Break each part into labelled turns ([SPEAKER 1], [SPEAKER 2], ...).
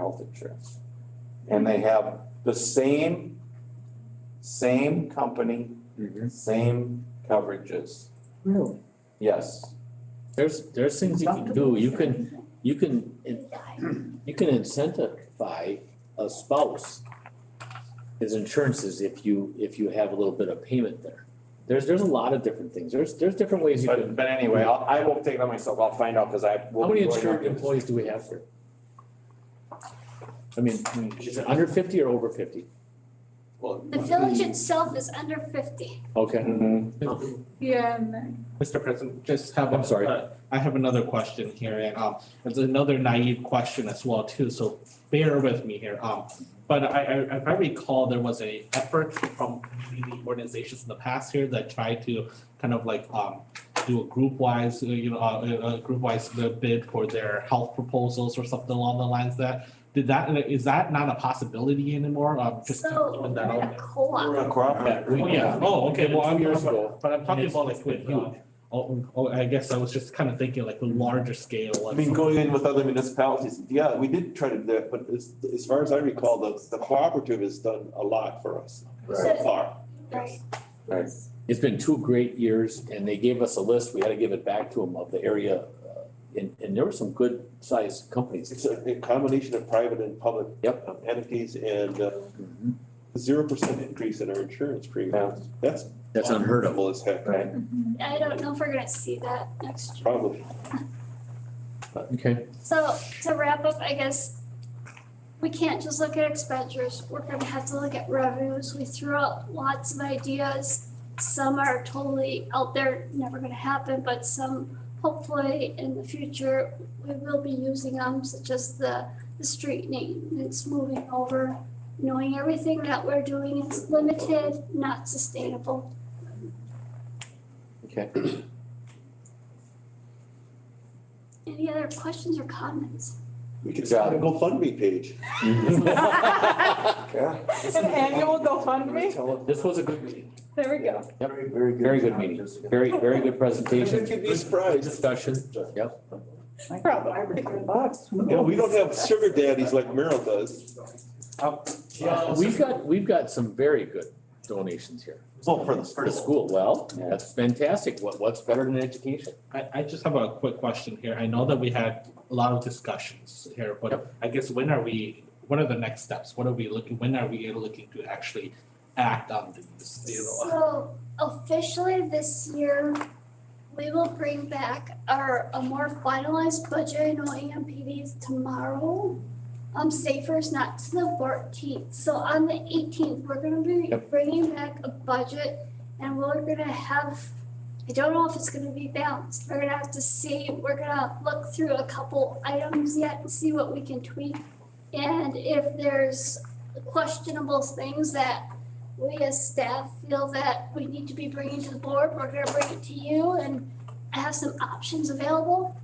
[SPEAKER 1] health insurance. And they have the same, same company,
[SPEAKER 2] Mm-hmm.
[SPEAKER 1] same coverages.
[SPEAKER 3] Really?
[SPEAKER 1] Yes,
[SPEAKER 2] There's, there's things you can do, you can, you can, you can incentivize a spouse. His insurances if you, if you have a little bit of payment there. There's, there's a lot of different things, there's, there's different ways you
[SPEAKER 1] but,
[SPEAKER 2] can.
[SPEAKER 1] but anyway, I'll, I will take that myself. I'll find out because I will.
[SPEAKER 2] How many
[SPEAKER 1] be going
[SPEAKER 2] insured
[SPEAKER 1] up to-
[SPEAKER 2] employees do we have here? I mean, is it under fifty or over fifty?
[SPEAKER 1] Well,
[SPEAKER 4] The village itself is under fifty.
[SPEAKER 2] Okay.
[SPEAKER 1] mhm.
[SPEAKER 4] Yeah.
[SPEAKER 5] Mr. President, just have.
[SPEAKER 2] I'm sorry.
[SPEAKER 5] uh, I have another question here, and um, it's another naive question as well too, so bear with me here. Um, but I, I, if I recall, there was a effort from community organizations in the past here that tried to kind of like um do a group wise, you know, uh, a, a group wise bid for their health proposals or something along the lines that. Did that, is that not a possibility anymore? Um, just
[SPEAKER 4] So we're
[SPEAKER 5] throwing that out
[SPEAKER 4] a
[SPEAKER 5] there.
[SPEAKER 4] co-op.
[SPEAKER 1] We're a cooperative.
[SPEAKER 2] we-
[SPEAKER 5] Oh, yeah, oh, okay, well, I'm.
[SPEAKER 2] Years ago.
[SPEAKER 5] But I'm talking about like
[SPEAKER 2] It's
[SPEAKER 5] with,
[SPEAKER 2] been
[SPEAKER 5] uh, oh, oh, I guess I was just kind of thinking like the larger scale.
[SPEAKER 1] I
[SPEAKER 5] like
[SPEAKER 1] mean,
[SPEAKER 5] some-
[SPEAKER 1] going in with other municipalities, yeah, we did try to do that, but as, as far as I recall, the, the cooperative has done a lot for us so
[SPEAKER 4] Right.
[SPEAKER 1] far. Right.
[SPEAKER 2] It's been two great years and they gave us a list, we had to give it back to them of the area. uh, And, and there were some good sized companies.
[SPEAKER 1] It's a a combination of private and public
[SPEAKER 2] Yep.
[SPEAKER 1] um, entities and uh, zero percent increase in our insurance premiums. That's
[SPEAKER 2] That's unheard of.
[SPEAKER 1] unbelievable as heck.
[SPEAKER 2] Right.
[SPEAKER 4] I don't know if we're gonna see that next year.
[SPEAKER 1] Probably.
[SPEAKER 2] Okay.
[SPEAKER 4] So to wrap up, I guess we can't just look at expenditures. We're gonna have to look at revenues. We threw out lots of ideas. Some are totally out there, never gonna happen, but some hopefully in the future, we will be using them, such as the, the street maintenance moving over. Knowing everything that we're doing is limited, not sustainable.
[SPEAKER 2] Okay.
[SPEAKER 4] Any other questions or comments?
[SPEAKER 1] We could
[SPEAKER 2] Good
[SPEAKER 1] start a GoFundMe page. Yeah.
[SPEAKER 3] An annual GoFundMe?
[SPEAKER 2] This was a good meeting,
[SPEAKER 3] There we go.
[SPEAKER 2] Yep.
[SPEAKER 1] Very, very good.
[SPEAKER 2] very good meeting, very, very good presentation.
[SPEAKER 1] You could be surprised.
[SPEAKER 2] Discussion,
[SPEAKER 3] Probably.
[SPEAKER 1] Yeah, we don't have sugar daddies like Merrill does.
[SPEAKER 2] Uh, we've got, we've got some very good donations here.
[SPEAKER 1] Well, for the
[SPEAKER 2] For the school, well, that's fantastic, what, what's better than education?
[SPEAKER 5] I, I just have a quick question here. I know that we had a lot of discussions here, but I guess when are we, what are the next steps? What are we looking, when are we looking to actually act on these, you know?
[SPEAKER 4] So officially this year, we will bring back our, a more finalized budget in OMPDs tomorrow. Um, safer is not to the fourteenth, so on the eighteenth, we're gonna be
[SPEAKER 2] Yep.
[SPEAKER 4] bringing back a budget and we're gonna have, I don't know if it's gonna be balanced, we're gonna have to see, we're gonna look through a couple items yet and see what we can tweak. And if there's questionable things that we as staff feel that we need to be bringing to the board, we're gonna bring it to you and have some options available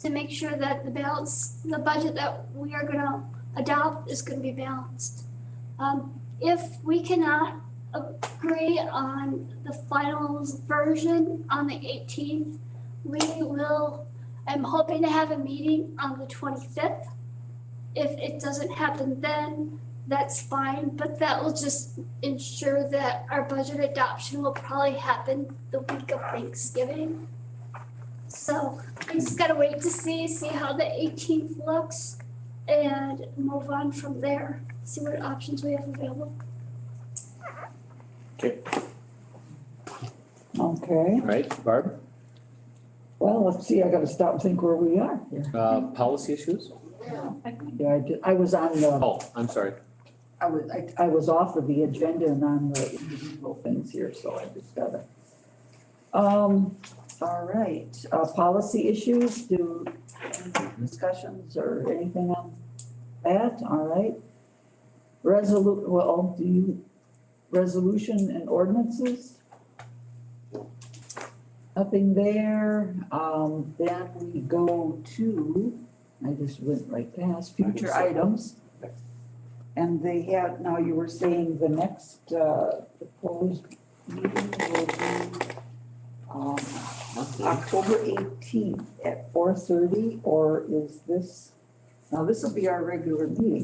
[SPEAKER 4] to make sure that the balance, the budget that we are gonna adopt is gonna be balanced. Um, if we cannot agree on the final version on the eighteenth, we will, I'm hoping to have a meeting on the twenty-fifth. If it doesn't happen then, that's fine, but that will just ensure that our budget adoption will probably happen the week of Thanksgiving. So I just gotta wait to see, see how the eighteenth looks and move on from there, see what options we have available.
[SPEAKER 3] Okay,
[SPEAKER 2] All Right, Barb,
[SPEAKER 3] well, let's see, I gotta stop and think where we are here.
[SPEAKER 2] uh, policy issues?
[SPEAKER 3] Yeah, I did, I was on the,
[SPEAKER 2] Oh, I'm sorry,
[SPEAKER 3] I was, I, I was off of the agenda and on the individual things here, so I just gotta. Um, all right, uh, policy issues, do any discussions or anything on that, all right? Resolu, well, do you, resolution and ordinances? Nothing there, um, then we go to, I just went right past, future items. And they had, now you were saying the next, uh, proposed meeting will be, um, October eighteenth at four thirty, or is this Now, this will be our regular meeting.